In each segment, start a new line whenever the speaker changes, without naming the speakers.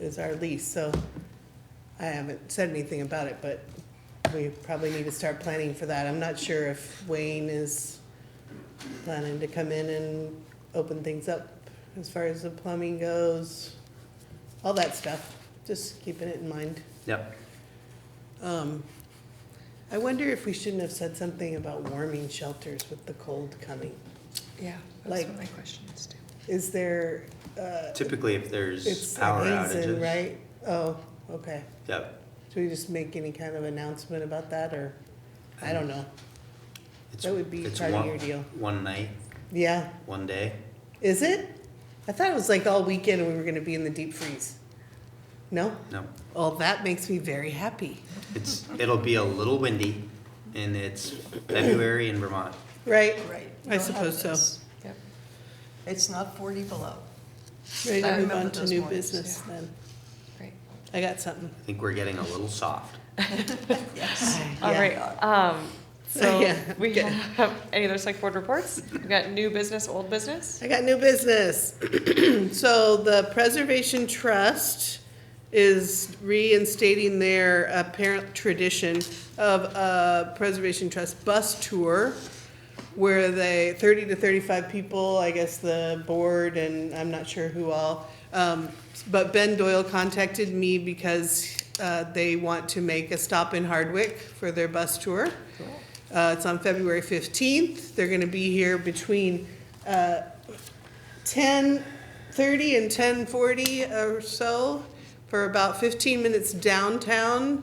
is our lease, so I haven't said anything about it, but we probably need to start planning for that. I'm not sure if Wayne is planning to come in and open things up as far as the plumbing goes, all that stuff, just keeping it in mind.
Yep.
Um, I wonder if we shouldn't have said something about warming shelters with the cold coming.
Yeah, that's
Like-
what my question is too.
Is there, uh,
Typically, if there's
it's
power
Hazen,
outages.
right? Oh, okay.
Yep.
Should we just make any kind of announcement about that, or, I don't know,
It's-
That would be
it's
part of
one-
your deal.
One night,
yeah,
one day.
is it? I thought it was like all weekend we were gonna be in the deep freeze. No?
No,
Well, that makes me very happy,
it's, it'll be a little windy and it's February in Vermont.
right?
Right.
I suppose so.
Yep.
It's not 40 below.
Ready to
I
move
remember
on to
those
new
mornings,
business then.
Great.
I got something.
I think we're getting a little soft.
Yes.
All
Yeah.
right, um, so
Yeah,
we
okay.
have, any other select board reports? We've got new business, old business?
I got new business. So the Preservation Trust is reinstating their apparent tradition of a Preservation Trust bus tour where they, thirty to thirty-five people, I guess the board and I'm not sure who all. Um, but Ben Doyle contacted me because, uh, they want to make a stop in Hardwick for their bus tour. Uh, it's on February fifteenth. They're gonna be here between, uh, ten thirty and ten forty or so for about fifteen minutes downtown.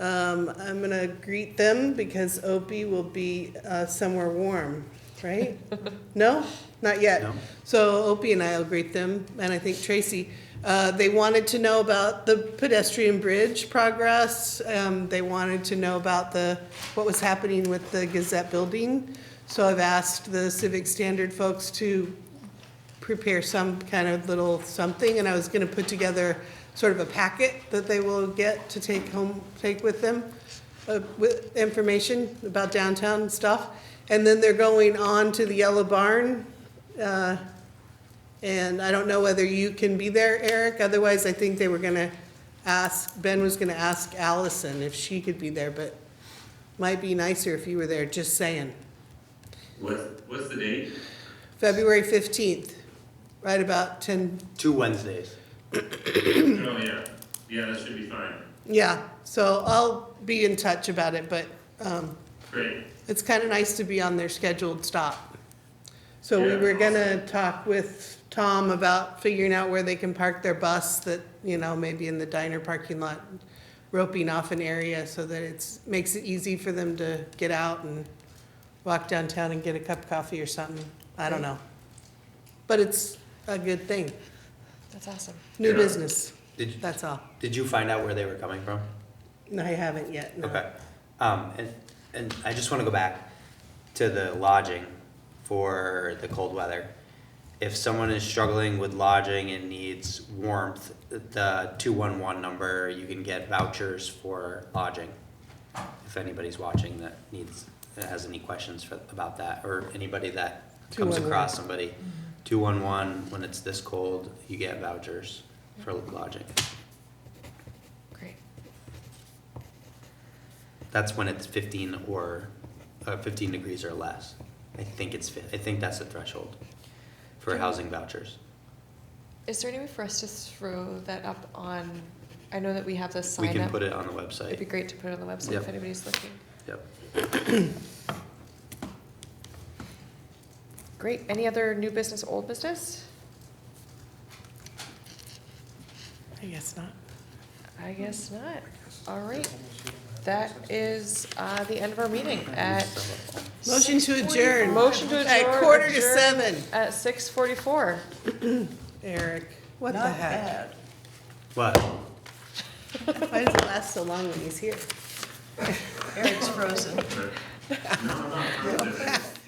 Um, I'm gonna greet them because Opie will be uh, somewhere warm, right? no, not yet.
No.
So Opie and I will greet them, and I think Tracy. Uh, they wanted to know about the pedestrian bridge progress. Um, they wanted to know about the what was happening with the Gazette building. So I've asked the Civic Standard folks to prepare some kind of little something, and I was gonna put together sort of a packet that they will get to take home, take with them, uh, with information about downtown stuff. And then they're going on to the Yellow Barn, uh, and I don't know whether you can be there, Eric, otherwise I think they were gonna ask, Ben was gonna ask Allison if she could be there, but might be nicer if you were there, just saying.
What's, what's the date?
February fifteenth, right about ten,
Two Wednesdays.
Oh, yeah, yeah, that should be fine.
Yeah, so I'll be in touch about it, but um,
Great,
it's kind of nice to be on their scheduled stop. So we
Yeah.
were gonna talk with Tom about figuring out where they can park their bus that, you know, maybe in the diner parking lot, roping off an area so that it's, makes it easy for them to get out and walk downtown and get a cup of coffee or something. I don't know. But it's a good thing.
That's awesome.
New
Yeah.
business,
Did, you-
that's all.
did you find out where they were coming from?
No, I haven't yet, no.
Okay. Um, and, and I just want to go back to the lodging for the cold weather. If someone is struggling with lodging and needs warmth, the two-one-one number, you can get vouchers for lodging. If anybody's watching that needs, that has any questions for, about that, or anybody that comes
211.
across somebody. Two-one-one, when it's this cold, you get vouchers for lodging.
Great.
That's when it's fifteen or, uh, fifteen degrees or less. I think it's, fif- I think that's the threshold for housing vouchers.
Is there any way for us to throw that up on, I know that we have this sign
We
up.
can put it on the
It'd be
website.
great to put it on the website
Yep.
if anybody's looking.
Yep.
Great, any other new business, old business?
I guess not.
I guess not. All right, that is, uh, the end of our meeting at
Motion to adjourn.
Motion to
At
adjourn-
quarter to
adjourn.
seven.
at six forty-four.
Eric, what the
Not
heck?
bad.
What?
Why does it last so long when he's here?
Eric's frozen.
but, no, I'm not, I'm